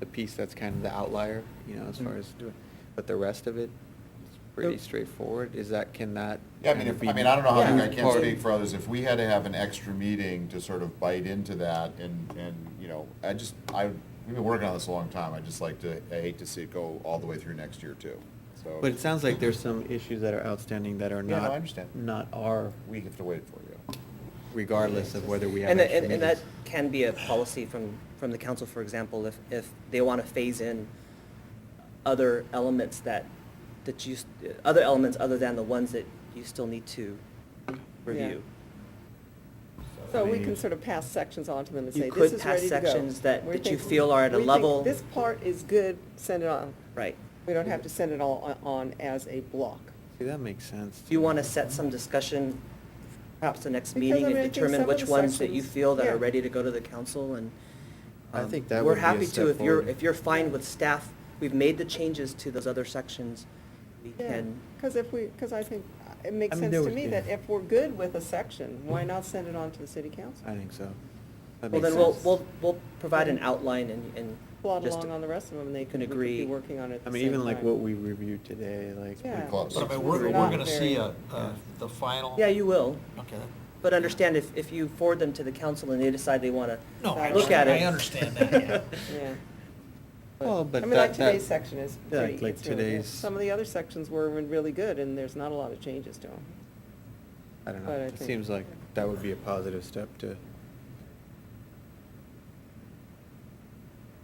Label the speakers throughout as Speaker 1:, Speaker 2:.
Speaker 1: the piece that's kind of the outlier, you know, as far
Speaker 2: Mm.
Speaker 1: as doing, but the rest of it, it's pretty
Speaker 2: Yep.
Speaker 1: straightforward. Is that, can that?
Speaker 3: Yeah, I mean,
Speaker 1: kind of
Speaker 3: if,
Speaker 1: be
Speaker 3: I mean, I don't know how,
Speaker 1: moved
Speaker 3: I can't
Speaker 1: forward?
Speaker 3: speak for others, if we had to have an extra meeting to sort of bite into that and, and, you know, I just, I, we've been working on this a long time, I just like to, I hate to see it go all the way through next year too, so.
Speaker 1: But it sounds like there's some issues that are outstanding that are
Speaker 3: Yeah,
Speaker 1: not.
Speaker 3: no, I understand.
Speaker 1: Not our,
Speaker 3: We have to wait for you.
Speaker 1: regardless of whether we have.
Speaker 2: And, that-
Speaker 1: extra
Speaker 2: and, and that
Speaker 1: meetings.
Speaker 2: can be a policy from, from the council, for example, if, if they want to phase in other elements that, that you, s- other elements other than the ones that you still need to review.
Speaker 4: So we can sort of pass sections on to them and
Speaker 2: You
Speaker 4: say,
Speaker 2: could
Speaker 4: this is
Speaker 2: pass
Speaker 4: ready to go.
Speaker 2: sections that-
Speaker 4: We
Speaker 2: that you
Speaker 4: think-
Speaker 2: feel are at a
Speaker 4: we think
Speaker 2: level-
Speaker 4: This part is good, send it on.
Speaker 2: Right.
Speaker 4: We don't have to send it all on- on as a block.
Speaker 1: See, that makes sense.
Speaker 2: Do you want to set some discussion, perhaps the next
Speaker 4: Because,
Speaker 2: meeting, and
Speaker 4: I mean, I think
Speaker 2: determine
Speaker 4: some of
Speaker 2: which
Speaker 4: the
Speaker 2: ones that you
Speaker 4: sections-
Speaker 2: feel that
Speaker 4: yeah.
Speaker 2: are ready to go to the council and?
Speaker 1: I
Speaker 2: um,
Speaker 1: think that would be a
Speaker 2: We're happy
Speaker 1: step
Speaker 2: to, if you're,
Speaker 1: forward.
Speaker 2: if you're fine with staff, we've made the changes to those other sections, we can.
Speaker 4: Because if we, because I think, uh, it
Speaker 1: I
Speaker 4: makes
Speaker 1: mean,
Speaker 4: sense
Speaker 1: there
Speaker 4: to
Speaker 1: would
Speaker 4: me
Speaker 1: be-
Speaker 4: that if we're good with a section, why not send it on to the city council?
Speaker 1: I think so. That
Speaker 2: Well,
Speaker 1: makes
Speaker 2: then we'll,
Speaker 1: sense.
Speaker 2: we'll, we'll provide an outline and, and.
Speaker 4: Plod
Speaker 2: just-
Speaker 4: along on the rest of them, and they
Speaker 2: can
Speaker 4: could we could
Speaker 2: agree.
Speaker 4: be working on it at
Speaker 1: I
Speaker 4: the
Speaker 1: mean,
Speaker 4: same
Speaker 1: even like
Speaker 4: time.
Speaker 1: what we reviewed today, like.
Speaker 4: Yeah.
Speaker 3: Pretty close.
Speaker 5: But I mean,
Speaker 4: It's
Speaker 5: we're, we're
Speaker 4: really not
Speaker 5: gonna see
Speaker 4: very-
Speaker 5: a, a- the final.
Speaker 2: Yeah, you will,
Speaker 5: Okay.
Speaker 2: but understand if, if you forward them to the council and they decide they want to.
Speaker 5: No, I
Speaker 2: Look at
Speaker 5: understand, I
Speaker 2: it.
Speaker 5: understand that,
Speaker 4: Yeah.
Speaker 1: Well,
Speaker 4: I
Speaker 1: but
Speaker 4: mean, like
Speaker 1: that,
Speaker 4: today's
Speaker 1: that,
Speaker 4: section is
Speaker 1: Yeah,
Speaker 4: pretty,
Speaker 1: like
Speaker 4: it's really good.
Speaker 1: today's-
Speaker 4: Some of the other sections were really good, and there's not a lot of changes to them.
Speaker 1: I don't know,
Speaker 4: but I
Speaker 1: it
Speaker 4: think-
Speaker 1: seems like that would be a positive step to,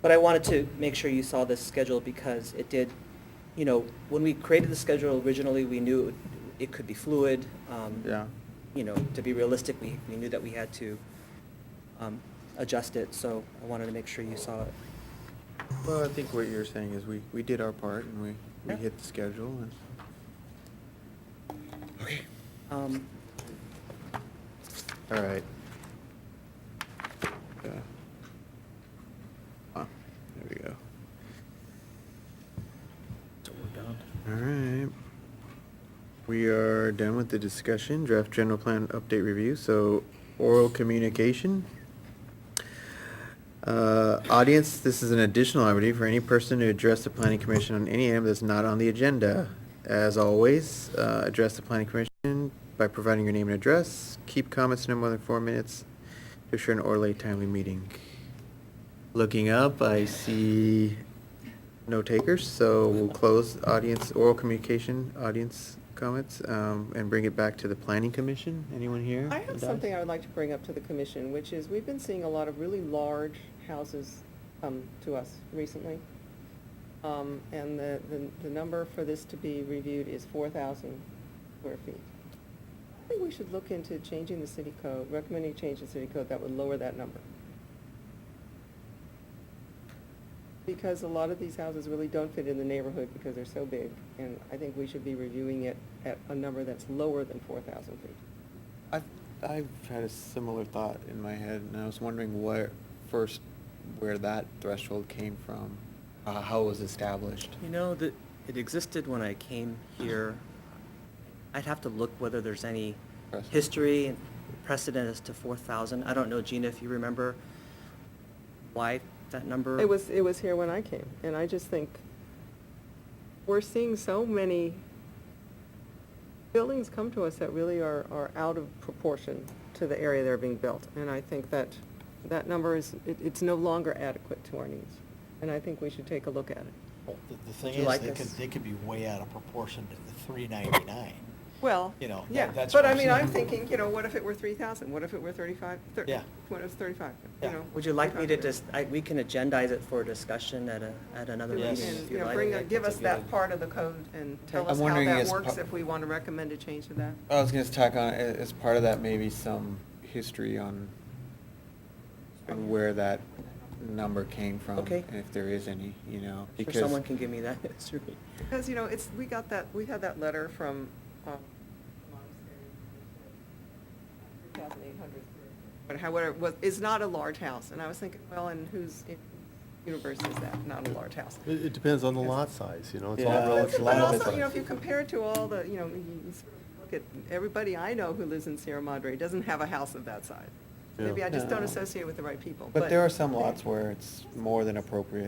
Speaker 2: But I wanted to make sure you saw this schedule because it did, you know, when we created the schedule originally, we knew it would- it could be fluid. um,
Speaker 1: yeah.
Speaker 2: You know, to be realistic, we, we knew that we had to um, adjust it, so I wanted to make sure you saw it.
Speaker 1: Well, I think what you're saying is we, we did our part and we, we
Speaker 2: Yeah.
Speaker 1: hit the schedule and.
Speaker 2: Um,
Speaker 1: All right. Yeah. Wow, there we go. So we're done. All right. We are done with the discussion, draft general plan update review, so oral communication. Uh, audience, this is an additional opportunity for any person to address the planning commission on any item that's not on the agenda. As always, uh, address the planning commission by providing your name and address. Keep comments no more than four minutes to ensure an orderly, timely meeting. Looking up, I see no takers, so we'll close audience, oral communication, audience comments, um, and bring it back to the planning commission. Anyone here?
Speaker 4: I have
Speaker 1: Does?
Speaker 4: something I would like to bring up to the commission, which is, we've been seeing a lot of really large houses come to us recently. Um, and the, the, the number for this to be reviewed is four thousand square feet. I think we should look into changing the city code, recommending change in city code that would lower that number. Because a lot of these houses really don't fit in the neighborhood because they're so big, and I think we should be reviewing it at a number that's lower than four thousand feet.
Speaker 1: I've, I've had a similar thought in my head, and I was wondering where, first, where that threshold came from, uh, how it was established.
Speaker 2: You know, that it existed when I came here. I'd have to look whether there's any
Speaker 1: Precedent.
Speaker 2: history and precedent as to four thousand. I don't know, Gina, if you remember why that number?
Speaker 4: It was, it was here when I came, and I just think, we're seeing so many buildings come to us that really are, are out of proportion to the area they're being built, and I think that, that number is, it, it's no longer adequate to our needs, and I think we should take a look at it.
Speaker 5: yeah. The, the thing
Speaker 4: Do you like
Speaker 5: is, they could,
Speaker 4: this?
Speaker 5: they could be way out of proportion to the three ninety-nine.
Speaker 4: Well,
Speaker 5: You know, that-
Speaker 4: yeah,
Speaker 5: that's
Speaker 4: but
Speaker 5: what
Speaker 4: I
Speaker 5: I'm
Speaker 4: mean, I'm
Speaker 5: saying.
Speaker 4: thinking, you know, what if it were three thousand, what if it were thirty-five, thir-
Speaker 5: Yeah.
Speaker 4: what if it's thirty-five, you
Speaker 5: Yeah.
Speaker 4: know?
Speaker 2: Would you like me to
Speaker 4: 3,500?
Speaker 2: just, I, we can agendize it for discussion at a, at another
Speaker 4: Do
Speaker 2: meeting
Speaker 4: it
Speaker 5: Yes.
Speaker 2: if
Speaker 4: and,
Speaker 2: you
Speaker 4: you know,
Speaker 2: like.
Speaker 4: bring,
Speaker 5: I
Speaker 4: a-
Speaker 5: think
Speaker 4: give
Speaker 5: that's
Speaker 4: us
Speaker 5: a
Speaker 4: that
Speaker 5: good-
Speaker 4: part of the code and tell
Speaker 1: I'm
Speaker 4: us how
Speaker 1: wondering
Speaker 4: that
Speaker 1: as
Speaker 4: works
Speaker 1: po-
Speaker 4: if we want to recommend a change to that.
Speaker 6: Uh,
Speaker 1: I was gonna tack on, a- as part of that, maybe some history on on where that number came from.
Speaker 2: Okay.
Speaker 1: and If there is any, you know,
Speaker 2: Sure,
Speaker 1: because.
Speaker 2: someone can give me that history.
Speaker 4: Because, you know, it's, we got that, we had that letter from, um. But however, was, is not a large house, and I was thinking, well, and whose universe is that, not a large house?
Speaker 6: It, it depends on the lot size, you know, it's all
Speaker 1: Yeah.
Speaker 4: But
Speaker 6: relative.
Speaker 4: it's-
Speaker 6: to
Speaker 4: But
Speaker 6: lot
Speaker 4: also, you know,
Speaker 6: size.
Speaker 4: if you compare it to all the, you know, you you sort of look at, everybody I know who lives in Sierra Madre doesn't have a house of that size. Maybe
Speaker 6: Yeah.
Speaker 4: I just don't
Speaker 1: No.
Speaker 4: associate with the right people, but.
Speaker 1: But there are some lots where it's more than appropriate.